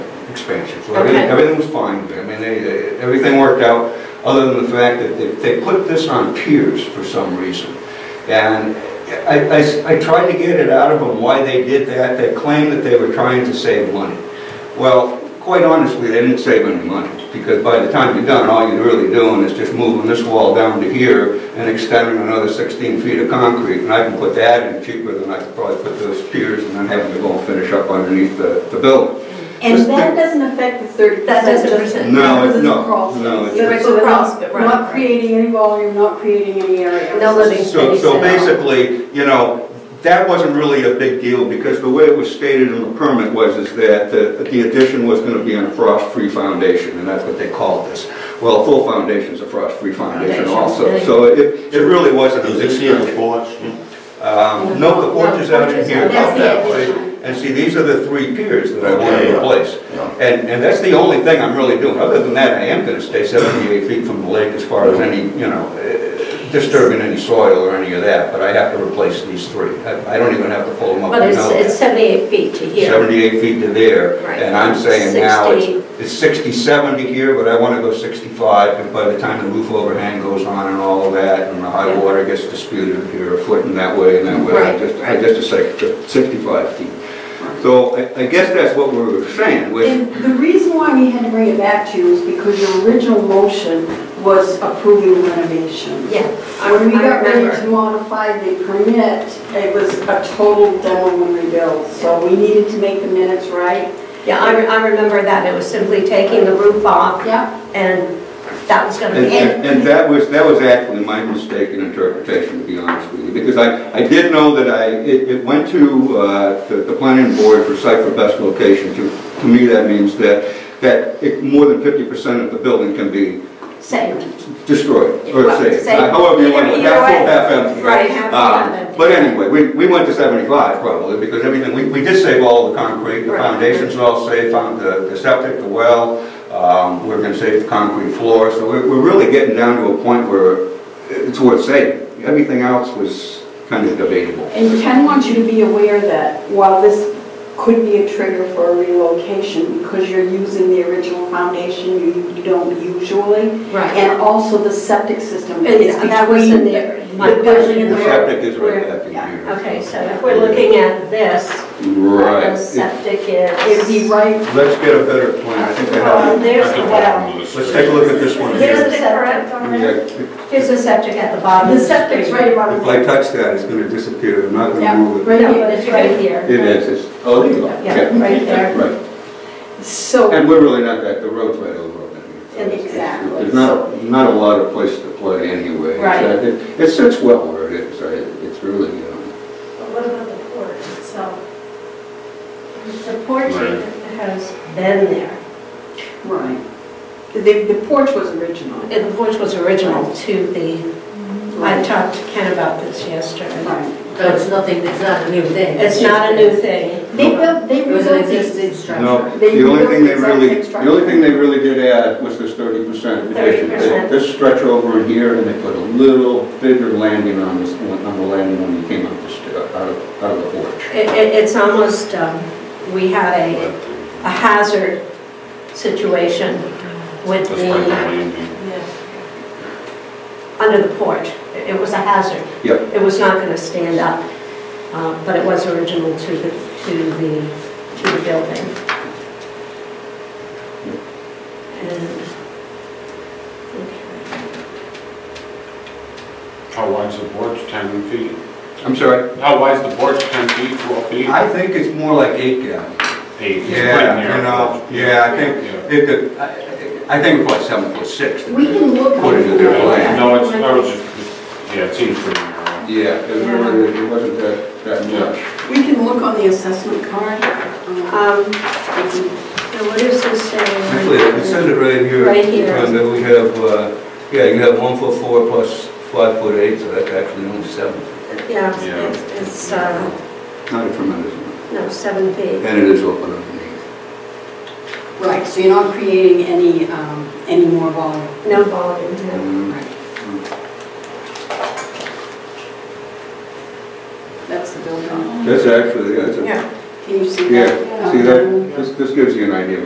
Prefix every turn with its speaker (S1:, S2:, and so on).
S1: expansion. So everything,
S2: Okay.
S1: everything was fine. I mean, they, they- everything worked out, other than the fact that they, they put this on piers for some reason. And I, I s- I tried to get it out of them why they did that. They claimed that they were trying to save money. Well, quite honestly, they didn't save any money, because by the time you're done, all you're really doing is just moving this wall down to here and extending another 16 feet of concrete, and I can put that in cheaper than I could probably put those piers and then have them go and finish up underneath the, the building.
S3: And that doesn't affect the thirty
S2: That
S3: percent.
S2: doesn't present.
S1: No,
S3: Because
S1: it-
S3: it's
S1: no,
S3: crawl space.
S1: no, it's-
S3: Yeah, right, so
S2: It's
S3: they're
S2: crawl
S3: not-
S2: space, right,
S3: Not
S2: right.
S3: creating any volume, not creating any area.
S2: No living
S1: So,
S2: space.
S1: so
S2: at all.
S1: basically, you know, that wasn't really a big deal, because the way it was stated in the permit was, is that the the addition was gonna be on a frost-free foundation, and that's what they called this. Well, a full foundation's a frost-free foundation
S2: Foundation,
S1: also,
S2: really.
S1: so it, it really wasn't a
S4: Does
S1: big
S4: this here the
S1: deal.
S4: porch?
S1: Um, no, the porch is out in here
S2: That's
S1: about
S2: the
S1: that way.
S2: addition.
S1: And see, these are the three piers that I wanted to
S4: Okay.
S1: replace.
S4: Yeah.
S1: And, and that's the only thing I'm really doing. Other than that, I am gonna stay 78 feet from the lake as far as any, you know, eh, disturbing any soil or any of that, but I have to replace these three. I I don't even have to pull them up.
S2: But
S1: and
S2: it's,
S1: know
S2: it's
S1: that.
S2: 78 feet to here.
S1: 78 feet to there,
S2: Right.
S1: and I'm saying now it's
S2: 60.
S1: it's 60, 70 here, but I wanna go 65, and by the time the roof overhang goes on and all of that, and the high
S2: Yeah.
S1: water gets disputed here, a foot in that way and that way, I
S2: Right,
S1: just, I
S2: right.
S1: just a second, 65 feet. So I I guess that's what we were saying, was
S3: And the reason why we had to bring it back to you is because your original motion was approving renovation.
S2: Yeah. I
S3: When we got ready
S2: remember.
S3: to modify the permit, it was a total demo and rebuild, so we needed to make the minutes right.
S2: Yeah, I, re- I remember that. It was simply taking the roof off
S3: Yep.
S2: and that was gonna be
S1: And-
S2: it.
S1: And and that was, that was actually my mistaken interpretation, to be honest with you, because I, I did know that I, it, it went to, uh, the, the planning board for site for best location. To, to me, that means that, that it- more than fifty percent of the building can be
S2: Saved.
S1: destroyed or
S2: Well,
S1: saved.
S2: saved.
S1: However you want to,
S2: Either-
S1: half full,
S2: either way.
S1: half empty.
S2: Right, half full,
S1: Uh,
S2: half empty.
S1: But anyway, we, we went to seventy-five probably, because everything, we, we did save all the concrete, the
S2: Right.
S1: foundations are all safe, found the, the septic, the well, um, we're gonna save the concrete floor, so we're, we're really getting down to a point where it's worth saving. Everything else was kind of debatable.
S3: And Ken wants you to be aware that while this could be a trigger for a relocation, because you're using the original foundation, you you don't usually,
S2: Right.
S3: and also the septic system
S2: And
S3: is
S2: that was in
S3: between
S2: there. My
S3: the building
S2: question.
S3: and the
S1: The
S3: road.
S1: septic is right back in
S3: Yeah.
S1: here.
S2: Okay, so if we're looking at this, the
S1: Right.
S2: septic
S3: It'd be
S2: is.
S3: right
S1: Let's get a better plan, I think I
S2: Well,
S1: have.
S2: Uh, there's the well.
S1: Let's take a look at this one
S2: Here's
S1: here.
S2: the septic.
S1: Yeah.
S2: Here's the septic at the bottom.
S3: The septic's right about
S1: If I touch that, it's gonna disappear, I'm not gonna
S3: Yeah,
S1: move it.
S3: right
S2: No,
S3: here.
S2: but it's right here.
S1: It is, it's, oh, there you go.
S2: Yeah, right there.
S1: Right,
S3: So,
S1: and we're really not that, the road's right over on that.
S3: And exactly.
S1: There's not, not a lot of place to play anyway.
S2: Right.
S1: So it- It sits well where it is, I- it's really, you know,
S5: But what about the porch itself? The porch
S4: Right.
S2: Has been there.
S3: right. The, the porch was original.
S2: And The porch was original to the, I talked to Ken about this yesterday.
S3: Right.
S6: So it's nothing, it's not a new thing.
S2: It's not a new thing.
S3: They built, they
S6: It was an
S3: rebuilt this.
S6: existing structure.
S1: no,
S3: They
S1: the only
S3: built
S1: thing they
S3: exact
S1: really,
S3: same
S1: the only thing they really did add was this thirty percent addition. They-
S2: 30%.
S1: This stretch over in here, and they put a little bigger landing on this, on the landing when you came up the, sta- out of, out of the porch.
S2: It, it- it's almost, um, we had a, a hazard situation with the, under the porch. It it was a hazard.
S1: Yep.
S2: It was not gonna stand up, uh, but it was original to the, to the, to the building. And, okay.
S4: How wide's the porch, 10 feet?
S1: I'm sorry?
S4: How wide's the porch, 10 feet, 12 feet?
S1: I think it's more like eight gallons.
S4: Eight, it's
S1: Yeah,
S4: pretty narrow.
S1: you know, yeah, I think,
S4: Yeah.
S1: it could, I, I think it's like seven foot six.
S3: We can look.
S1: According to their plan.
S4: No, it's, I was just, yeah, it seems pretty narrow.
S1: Yeah, it wasn't, it wasn't that, that much.
S3: We can look on the assessment card.
S2: Um,
S3: um, if we-
S2: now what is this saying?
S1: Actually, I can send it right here.
S2: Right here.
S1: And then we have, uh, yeah, you have one foot four plus five foot eight, so that's actually only seven.
S2: Yeah,
S4: Yeah.
S2: it's- it's, uh,
S1: Not a tremendous amount.
S2: no, seven feet.
S1: And it is open underneath.
S3: Right, so you're not creating any, um, any more volume.
S2: No volume, no.
S1: Mm,
S3: That's the building.
S1: That's actually, that's a,
S2: Yeah. Um,
S3: Can you see
S1: yeah,
S3: that? Um,
S1: see that, this, this gives you an idea